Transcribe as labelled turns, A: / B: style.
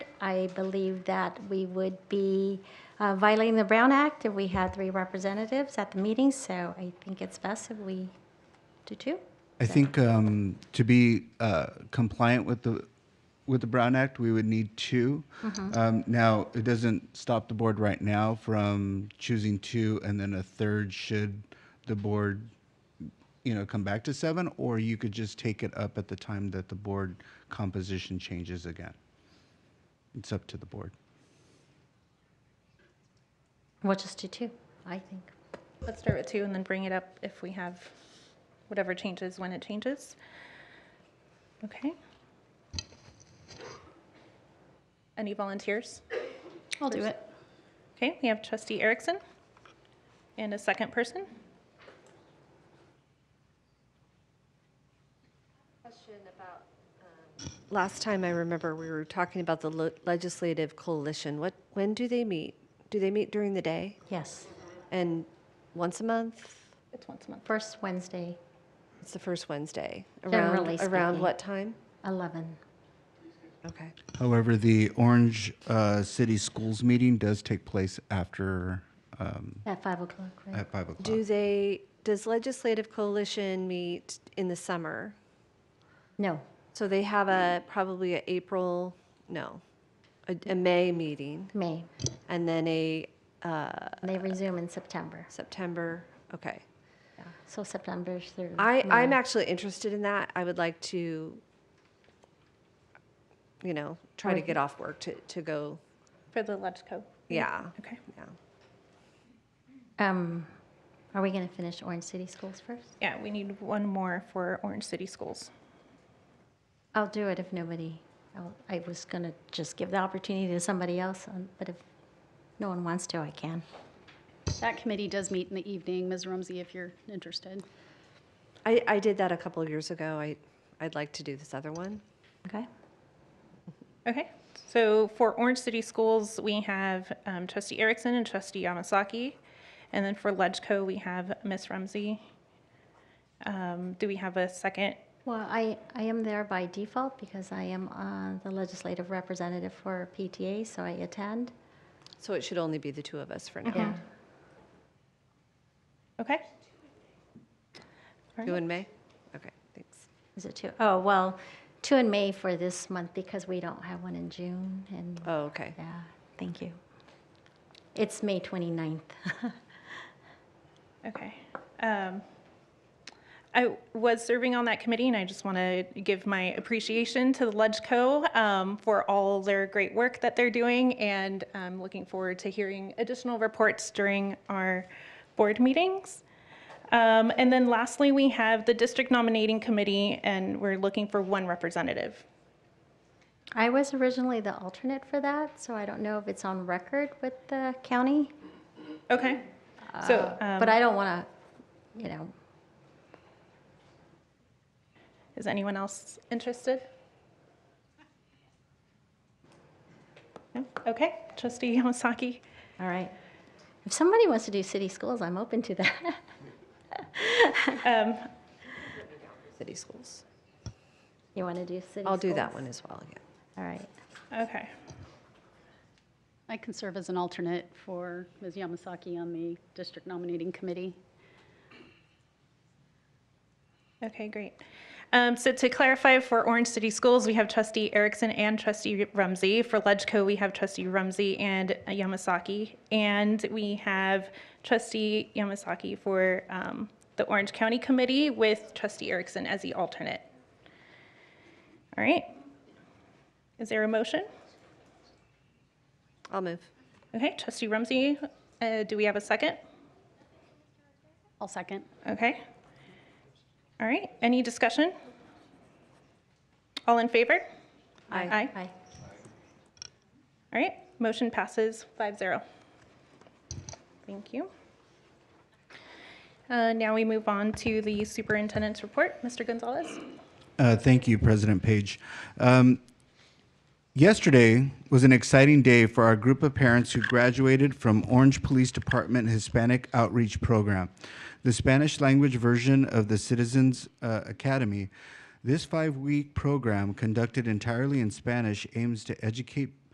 A: I believe that we would be uh, violating the Brown Act if we had three representatives at the meeting, so I think it's best if we do two.
B: I think um, to be uh, compliant with the with the Brown Act, we would need 2 Um, now, it doesn't stop the board right now from choosing two, and then a third should the board, you know, come back to seven, or you could just take it up at the time that the board composition changes again. It's up to the board.
A: We'll just do two, I think.
C: Let's start with two and then bring it up if we have whatever changes when it changes. Okay. Any volunteers?
A: I'll do it.
C: Okay, we have trustee Erickson and a second person.
D: Last time I remember, we were talking about the le- legislative coalition. What, when do they meet? Do they meet during the day?
A: Yes,
D: And once a month?
C: It's once a month.
A: first Wednesday,
D: It's the first Wednesday.
A: Generally
D: Around, around
A: speaking.
D: what time?
A: 11.
D: Okay.
B: However, the Orange uh, City Schools meeting does take place after um,
A: At 5 o'clock, right?
B: at five o'clock.
D: Do they, does legislative coalition meet in the summer?
A: No,
D: So they have a, probably a April, no, a, a May meeting
A: May.
D: and then a
A: They resume in September,
D: September, okay.
A: so September through.
D: I, I'm
A: May.
D: actually interested in that. I would like to, you know, try to get off work to, to go,
C: For the LegCo.
D: yeah,
C: Okay.
D: yeah.
A: Um, Are we going to finish Orange City Schools first?
C: Yeah, we need one more for Orange City Schools.
A: I'll do it if nobody, I'll- I was going to just give the opportunity to somebody else, um, but if no one wants to, I can.
E: That committee does meet in the evening, Ms. Rumsey, if you're interested.
D: I, I did that a couple of years ago. I, I'd like to do this other one.
A: Okay?
C: Okay, so for Orange City Schools, we have um, trustee Erickson and trustee Yamasaki. And then for LegCo, we have Ms. Rumsey. Um, Do we have a second?
A: Well, I, I am there by default because I am uh, the legislative representative for PTA, so I attend.
D: So it should only be the two of us for now,
A: Yeah.
C: Okay.
D: two in May? Okay, thanks.
A: Is it two? Oh, well, two in May for this month because we don't have one in June and,
D: Oh, okay.
A: yeah, thank you. It's May 29th.
C: Okay. Um, I was serving on that committee, and I just want to give my appreciation to the LegCo um, for all their great work that they're doing, and I'm looking forward to hearing additional reports during our board meetings. Um, And then lastly, we have the district nominating committee, and we're looking for one representative.
A: I was originally the alternate for that, so I don't know if it's on record with the county,
C: Okay? So, um,
A: Uh, but I don't want to, you know,
C: is anyone else interested? No? Okay, trustee Yamasaki?
A: all right. If somebody wants to do city schools, I'm open to that.
D: City schools.
A: You want to do city schools?
D: I'll do that one as well, yeah.
A: All right.
C: Okay.
E: I can serve as an alternate for Ms. Yamasaki on the district nominating committee.
C: Okay, great. Um, So to clarify, for Orange City Schools, we have trustee Erickson and trustee Rumsey. For LegCo, we have trustee Rumsey and Yamasaki. And we have trustee Yamasaki for um, the Orange County Committee with trustee Erickson as the alternate. All right. Is there a motion?
D: I'll move.
C: Okay, trustee Rumsey, uh, do we have a second?
E: I'll second.
C: Okay. All right, any discussion? All in favor?
D: Aye.
C: Aye.
A: Bye.
C: All right, motion passes 5-0. Thank you. Uh, Now we move on to the superintendent's report. Mr. Gonzalez?
B: Uh, thank you, President Page. Um, yesterday was an exciting day for our group of parents who graduated from Orange Police Department Hispanic Outreach Program, the Spanish language version of the Citizens uh, Academy. This five week program, conducted entirely in Spanish, aims to educate